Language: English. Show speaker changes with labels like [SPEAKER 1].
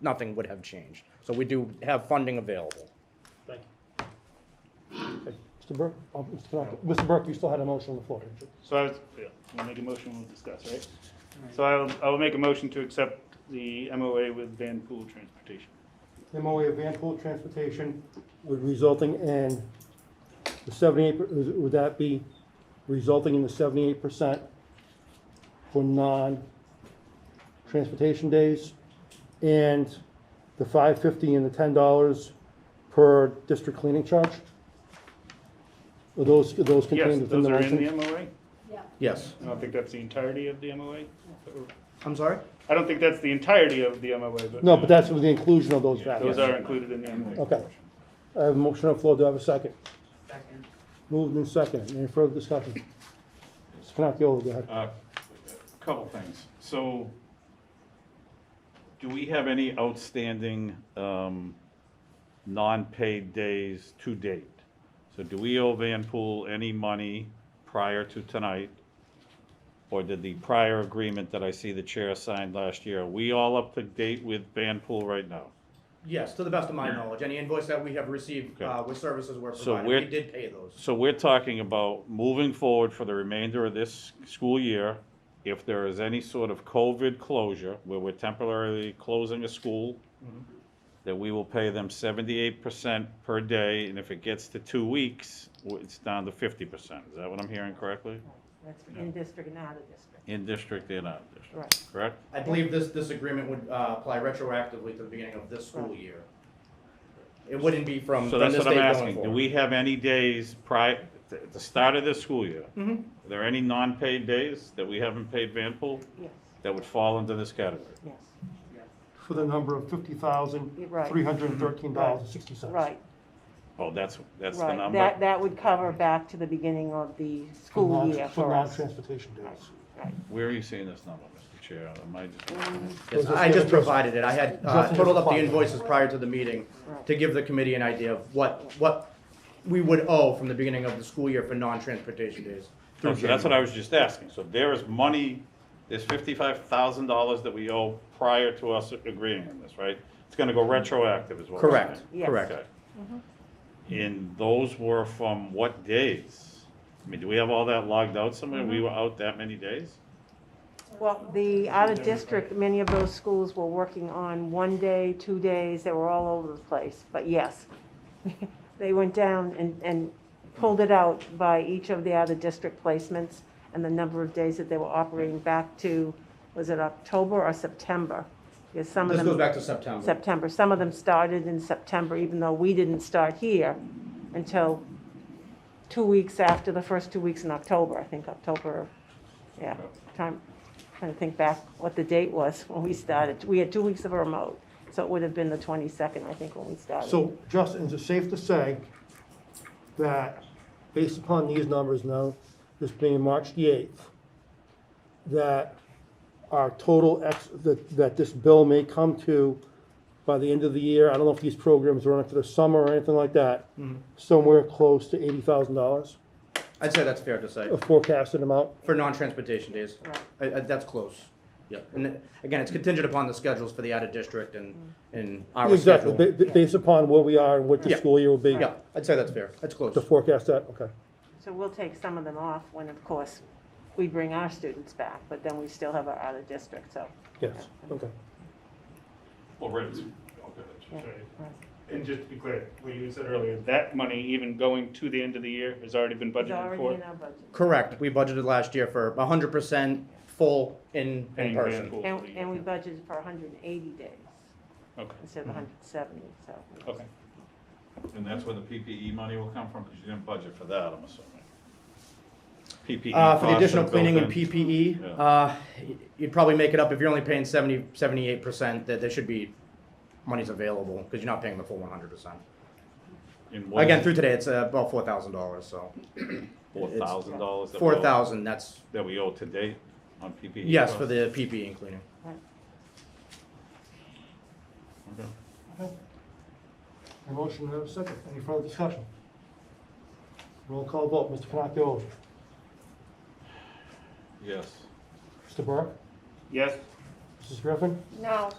[SPEAKER 1] nothing would have changed. So we do have funding available.
[SPEAKER 2] Thank you.
[SPEAKER 3] Okay, Mr. Burke, oh, Mr. Tanaka. Mr. Burke, you still had a motion on the floor.
[SPEAKER 4] So I was, yeah, we'll make a motion, we'll discuss, right? So I will, I will make a motion to accept the MOA with Van Pool Transportation.
[SPEAKER 3] MOA of Van Pool Transportation would resulting in the seventy-eight, per- is- would that be resulting in the seventy-eight percent for non-transportation days? And the five fifty and the ten dollars per district cleaning charge? Are those, are those
[SPEAKER 4] Yes,
[SPEAKER 3] contained within
[SPEAKER 4] those
[SPEAKER 3] the
[SPEAKER 4] are
[SPEAKER 3] motion?
[SPEAKER 4] in the MOA.
[SPEAKER 5] Yeah.
[SPEAKER 1] Yes.
[SPEAKER 4] I don't think that's the entirety of the MOA.
[SPEAKER 1] I'm sorry?
[SPEAKER 4] I don't think that's the entirety of the MOA, but.
[SPEAKER 3] No, but that's with the inclusion of those values.
[SPEAKER 4] Those are included in the MOA.
[SPEAKER 3] Okay. I have a motion on the floor, do I have a second? Second. Moved and second, any further discussion? Mr. Cannapoli, go ahead.
[SPEAKER 6] Uh, Couple things. So do we have any outstanding um, non-paid days to date? So do we owe Van Pool any money prior to tonight? Or did the prior agreement that I see the chair signed last year, are we all up to date with Van Pool right now?
[SPEAKER 1] Yes, to the best of my knowledge, any invoice that we have received,
[SPEAKER 6] Okay.
[SPEAKER 1] uh, with services were
[SPEAKER 6] So
[SPEAKER 1] provided,
[SPEAKER 6] we're-
[SPEAKER 1] we did pay those.
[SPEAKER 6] So we're talking about moving forward for the remainder of this school year, if there is any sort of COVID closure, where we're temporarily closing a school,
[SPEAKER 1] Mm-hmm.
[SPEAKER 6] that we will pay them seventy-eight percent per day, and if it gets to two weeks, w- it's down to fifty percent. Is that what I'm hearing correctly?
[SPEAKER 7] That's in district and out of district.
[SPEAKER 6] In district and out of
[SPEAKER 7] Right.
[SPEAKER 6] district, correct?
[SPEAKER 1] I believe this, this agreement would, uh, apply retroactively to the beginning of this school
[SPEAKER 7] Right.
[SPEAKER 1] year. It wouldn't be from,
[SPEAKER 6] So
[SPEAKER 1] from
[SPEAKER 6] that's
[SPEAKER 1] this
[SPEAKER 6] what
[SPEAKER 1] date
[SPEAKER 6] I'm
[SPEAKER 1] going
[SPEAKER 6] asking. Do
[SPEAKER 1] forward.
[SPEAKER 6] we have any days prior, at the start of this school year? Are there any non-paid days that we haven't paid Vanpool
[SPEAKER 7] Yes,
[SPEAKER 6] that would fall into this category?
[SPEAKER 7] yes,
[SPEAKER 3] For the number of fifty thousand, three hundred and thirteen dollars and sixty cents.
[SPEAKER 7] right,
[SPEAKER 6] Oh, that's, that's the
[SPEAKER 7] right.
[SPEAKER 6] number?
[SPEAKER 7] That, that would cover back to the beginning of the school year for us.
[SPEAKER 3] non-transportation days.
[SPEAKER 7] Right.
[SPEAKER 6] Where are you seeing this number, Mr. Chair? Am I just?
[SPEAKER 1] Yes, I just provided it, I had, uh,
[SPEAKER 3] Justin,
[SPEAKER 1] totaled up the
[SPEAKER 3] just-
[SPEAKER 1] invoices prior to the meeting
[SPEAKER 7] Right.
[SPEAKER 1] to give the committee an idea of what, what we would owe from the beginning of the school year for non-transportation days. through
[SPEAKER 6] No, Oh, so That's what
[SPEAKER 1] January.
[SPEAKER 6] I was just asking. So there is money, there's fifty-five thousand dollars that we owe prior to us agreeing on this, right? It's gonna go retroactive as well.
[SPEAKER 1] Correct,
[SPEAKER 7] Yes.
[SPEAKER 1] correct.
[SPEAKER 7] Mm-hmm.
[SPEAKER 6] And those were from what days? I mean, do we have all that logged out somewhere?
[SPEAKER 7] Mm-hmm.
[SPEAKER 6] We were out that many days?
[SPEAKER 7] Well, the out of district, many of those schools were working on one day, two days, they were all over the place, but yes. They went down and, and pulled it out by each of the out of district placements and the number of days that they were operating back to, was it October or September? Because some
[SPEAKER 1] This
[SPEAKER 7] of them.
[SPEAKER 1] goes back to September.
[SPEAKER 7] September. Some of them started in September, even though we didn't start here until two weeks after the first two weeks in October, I think October, yeah, time, trying to think back what the date was when we started. We had two weeks of a remote, so it would have been the 22nd, I think, when we started.
[SPEAKER 3] So, Justin, is it safe to say that, based upon these numbers now, this being March the eighth, that our total ex, that, that this bill may come to by the end of the year, I don't know if these programs run into the summer or anything like that,
[SPEAKER 1] Mm-hmm.
[SPEAKER 3] somewhere close to eighty thousand dollars,
[SPEAKER 1] I'd say that's fair to say,
[SPEAKER 3] a forecasted amount?
[SPEAKER 1] for non-transportation days.
[SPEAKER 7] Right.
[SPEAKER 1] I- I- That's close. Yep. And then, again, it's contingent upon the schedules for the out-of-district and, and our
[SPEAKER 3] Exactly,
[SPEAKER 1] schedule.
[SPEAKER 3] ba- ba- based upon where we are and what the
[SPEAKER 1] Yeah.
[SPEAKER 3] school year will be,
[SPEAKER 1] Yeah, I'd say that's fair. That's close.
[SPEAKER 3] to forecast that, okay.
[SPEAKER 7] So we'll take some of them off when, of course, we bring our students back, but then we still have our out-of-district, so.
[SPEAKER 3] Yes, okay.
[SPEAKER 6] Well, right.
[SPEAKER 7] yeah,
[SPEAKER 4] Sorry.
[SPEAKER 7] right.
[SPEAKER 4] And just to be clear, what you said earlier, that money, even going to the end of the year, has already been
[SPEAKER 7] It's
[SPEAKER 4] budgeted
[SPEAKER 7] already in
[SPEAKER 4] for.
[SPEAKER 7] our budget.
[SPEAKER 1] Correct. We budgeted last year for hundred percent full in, in
[SPEAKER 4] paying Van
[SPEAKER 1] person.
[SPEAKER 4] Pool for
[SPEAKER 7] And,
[SPEAKER 4] the year.
[SPEAKER 7] and we budgeted for 180 days
[SPEAKER 4] Okay,
[SPEAKER 7] instead of 170, so.
[SPEAKER 4] okay.
[SPEAKER 6] And that's where the PPE money will come from, because you didn't budget for that, I'm assuming.
[SPEAKER 1] Uh, for
[SPEAKER 6] PPE costs
[SPEAKER 1] the
[SPEAKER 6] are
[SPEAKER 1] additional cleaning and
[SPEAKER 6] built in.
[SPEAKER 1] PPE,
[SPEAKER 6] Yeah.
[SPEAKER 1] uh, y- you'd probably make it up if you're only paying 70 78 percent, that there should be monies available, because you're not paying the full one hundred percent.
[SPEAKER 6] And what is
[SPEAKER 1] Again,
[SPEAKER 6] it?
[SPEAKER 1] through today, it's uh, about four thousand dollars, so
[SPEAKER 6] Four thousand dollars?
[SPEAKER 1] four thousand, that's,
[SPEAKER 6] That we owe to date on E? PPE?
[SPEAKER 1] yes, for
[SPEAKER 6] costs?
[SPEAKER 1] the E PPE and cleaning.
[SPEAKER 6] Okay.
[SPEAKER 3] A motion, and a second. Any further discussion? Roll call vote, Mr. Pinocchio.
[SPEAKER 6] Yes.
[SPEAKER 3] Mr. Burke?
[SPEAKER 4] Yes?
[SPEAKER 3] Mrs. Griffin?
[SPEAKER 7] No,